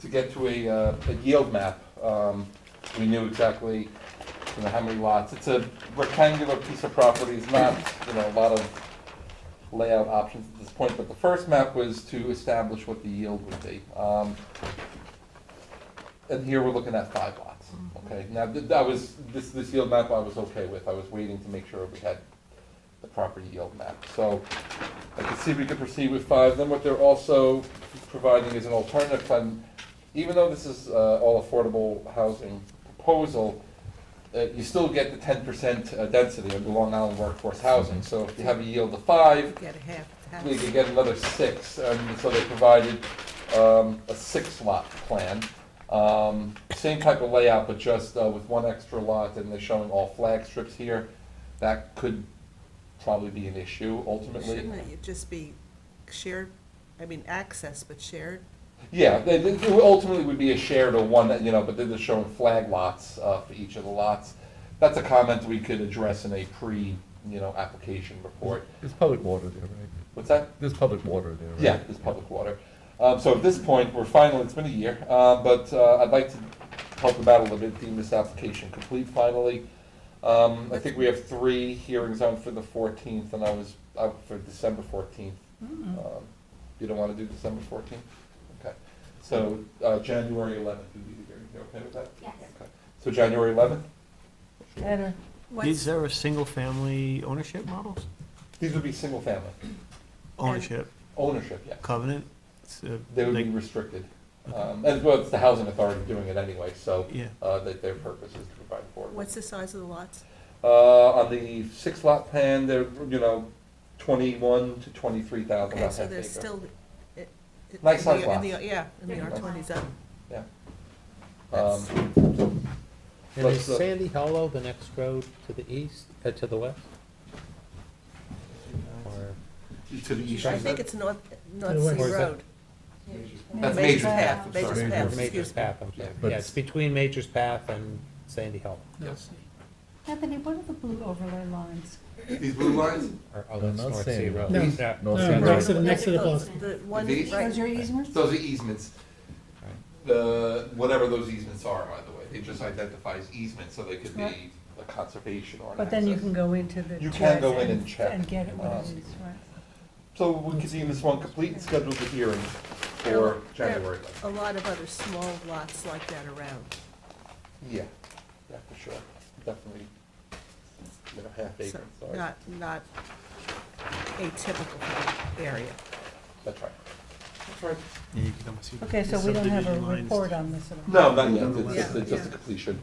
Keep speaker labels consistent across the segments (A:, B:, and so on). A: to get to a, uh, a yield map, um, we knew exactly, you know, how many lots. It's a rectangular piece of property, it's not, you know, a lot of layout options at this point, but the first map was to establish what the yield would be. Um, And here we're looking at five lots, okay? Now, th- that was, this, this yield map I was okay with, I was waiting to make sure we had the proper yield map. So I can see we could proceed with five, then what they're also providing is an alternative fund. Even though this is uh, all affordable housing proposal, uh, you still get the ten percent uh, density of the Long Island workforce housing. So if you have a yield of five,
B: Get a half house.
A: they could get another six, and so they provided um, a six-lot plan. Um, Same type of layout, but just uh, with one extra lot, and they're showing all flag strips here. That could probably be an issue ultimately.
B: Shouldn't it just be shared, I mean, access, but shared?
A: Yeah, they- they- it ultimately would be a shared or one, that, you know, but they're just showing flag lots uh, for each of the lots. That's a comment we could address in a pre, you know, application report.
C: There's public water there, right?
A: What's that?
C: There's public water there, right?
A: Yeah, it's public water. Um, so at this point, we're final, it's been a year, uh, but, uh, I'd like to help them out a little bit, deem this application complete finally. Um, I think we have three hearings on for the fourteenth, and I was, up for December fourteenth. Um, You don't wanna do December fourteenth? Okay, so, uh, January eleventh would be the hearing, you okay with that?
D: Yes.
A: Okay. So January eleventh,
E: Better.
B: What's-
F: These are single-family ownership models?
A: these would be single family,
F: Ownership,
A: ownership, yeah,
F: covenant? it's, uh,
A: they would be
F: like-
A: restricted.
F: Okay.
A: Um, and well, it's the housing authority doing it anyway, so.
F: Yeah,
A: uh, that their purpose is to provide for.
B: What's the size of the lots?
A: Uh, on the six lot plan, they're, you know, twenty-one to twenty-three thousand
B: Okay,
A: lot
B: so
A: half
B: there's
A: acre.
B: still. it- it-
A: Nice
B: in the-
A: size
B: in the- Yeah, in the
D: They're
B: R twenty zone.
A: Yeah.
B: That's-
A: Um, so
E: And
A: Let's,
E: is
A: uh,
E: Sandy Hollow the next road to the east, uh, to the west? Or
A: To the east.
B: I
A: you
B: think
A: said?
B: it's North, North Sea
E: where's that?
B: Road.
A: That's
B: Major's
A: Major's Path, I'm
B: Major's
A: sorry.
B: Path,
E: Major's
B: excuse me.
E: Path, I'm sorry.
A: Yeah.
E: Yeah, it's between Major's Path and Sandy Hollow.
A: Yes.
D: Anthony, what are the blue overlay lines?
A: These blue lines,
E: Or, oh,
C: No,
E: that's
C: not
E: North
C: Sandy
E: Sea
C: Hollow.
E: Road.
G: No.
E: Yeah,
C: No,
E: North
G: no,
E: Sea
G: Right,
E: Road.
G: so the next to the
B: Those-
G: post.
B: The one,
A: These?
D: Those
B: right,
D: are easements?
A: those are easements. The, whatever those easements are, by the way, it just identifies easements, so they could be
D: Right.
A: a conservation or an
G: But then you
A: access.
G: can go into the.
A: You can go
G: charts
A: in and check,
G: And get it what
A: um,
G: it is, right.
A: So we could deem this one complete and schedule the hearing for
B: There-
A: January.
B: a lot of other small lots like that around.
A: Yeah, yeah, for sure, definitely, you know, half
B: So
A: acre, sorry.
B: Not, not atypical for the area.
A: That's right. That's right.
F: yeah, you can almost see the
G: Okay, so we don't have a
F: subdivision lines.
G: report on this at all.
A: No, not yet,
F: Yeah.
A: it's just, it's just a
B: Yeah.
A: completion.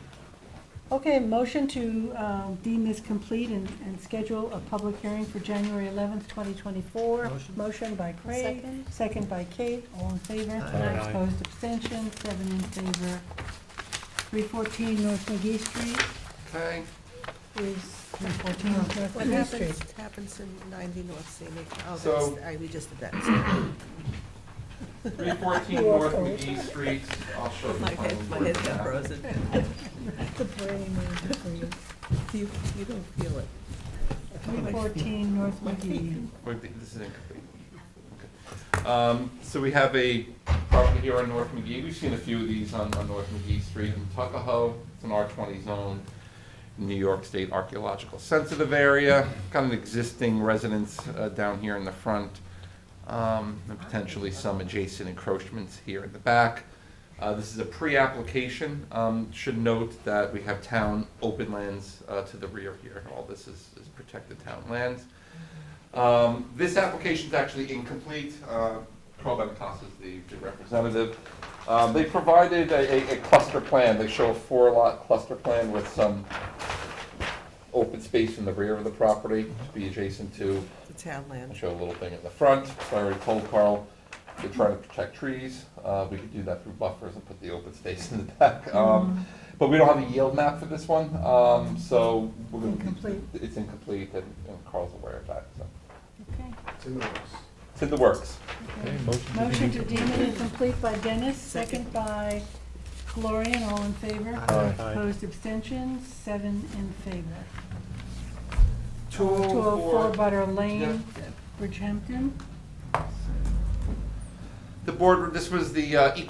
G: Okay, motion to um, deem this complete and, and schedule a public hearing for January eleventh, twenty twenty-four.
F: Motion.
G: Motion by Craig,
D: Second.
G: second by Kate, all in favor.
F: Aye. Aye.
G: Opposed, abstention, seven in favor. Three fourteen North McGee Street
A: Okay.
G: is, three fourteen North
B: What
G: McGee Street.
B: happens, happens in ninety North Scenic, oh,
A: So-
B: that's, I, we just did that.
A: Three fourteen
G: You are North correct.
A: Street, I'll show
B: My head, my head got frozen.
G: The brain is for you.
B: You, you don't feel it.
G: Three fourteen North McGee.
A: This is incomplete. Okay. Um, so we have a property here on North McGee, we've seen a few of these on, on North McGee Street in Tuckahoe, it's an R twenty zone. New York State Archaeological Sensitive Area, got an existing residence uh, down here in the front, um, and potentially some adjacent encroachments here in the back. Uh, This is a pre-application, Um, should note that we have town open lands uh, to the rear here, all this is is protected town lands. Um, This application's actually incomplete, Uh, Carl Benincasa is the the representative. Um, They provided a- a a cluster plan, they show a four-lot cluster plan with some open space in the rear of the property to be adjacent to,
B: The town
A: and
B: land.
A: show a little thing in the front. So I already told Carl, they're trying to protect trees. Uh, We could do that through buffers and put the open space in the back. Um, But we don't have a yield map for this one, um, so. we're gonna-
G: Incomplete.
A: It's incomplete, and and Carl's aware of that, so.
G: Okay.
A: It's in the works.
C: Okay, motion to
G: Motion to
C: deem-
G: deem it incomplete by Dennis, second by Gloria, all in favor.
F: Aye. Aye.
G: Opposed, abstentions, seven in favor.
A: Two
G: Two
A: oh
G: oh four
A: four.
G: Butter Lane, Bridgehampton.
A: The board, this was the uh, eco